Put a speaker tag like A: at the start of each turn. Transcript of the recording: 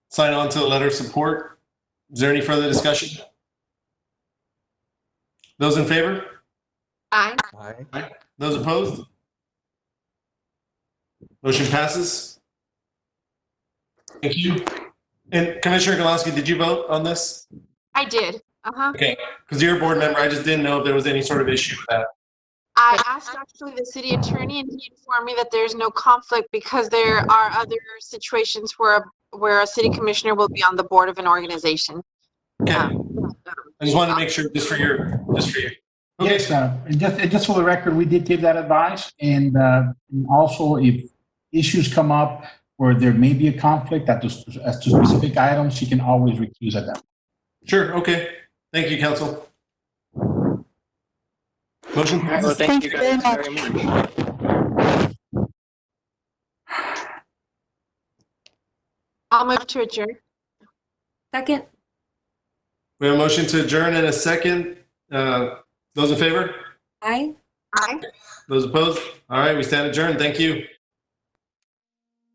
A: sign on to the letter of support. Is there any further discussion? Those in favor?
B: Aye.
C: Aye.
A: Those opposed? Motion passes. Thank you. And Commissioner Galowski, did you vote on this?
B: I did. Uh huh.
A: Because you're a board member, I just didn't know if there was any sort of issue with that.
B: I asked actually the city attorney and he informed me that there's no conflict because there are other situations where, where a city commissioner will be on the board of an organization.
A: Okay,
B: Um,
A: I just wanted to make sure, just for your, just for you. Okay,
D: Yes, sir. And just, and just for the record, we did give that advice. And, uh, and also if issues come up where there may be a conflict at the, as to specific items, she can always recuse at that.
A: sure, okay. Thank you, council. Motion
E: Well,
A: passes.
E: thank you guys very much.
B: I'll move to adjourn.
F: Second.
A: We have a motion to adjourn in a second. Uh, Those in favor?
F: Aye.
B: Aye.
A: Those opposed? All right, we stand adjourned. Thank you.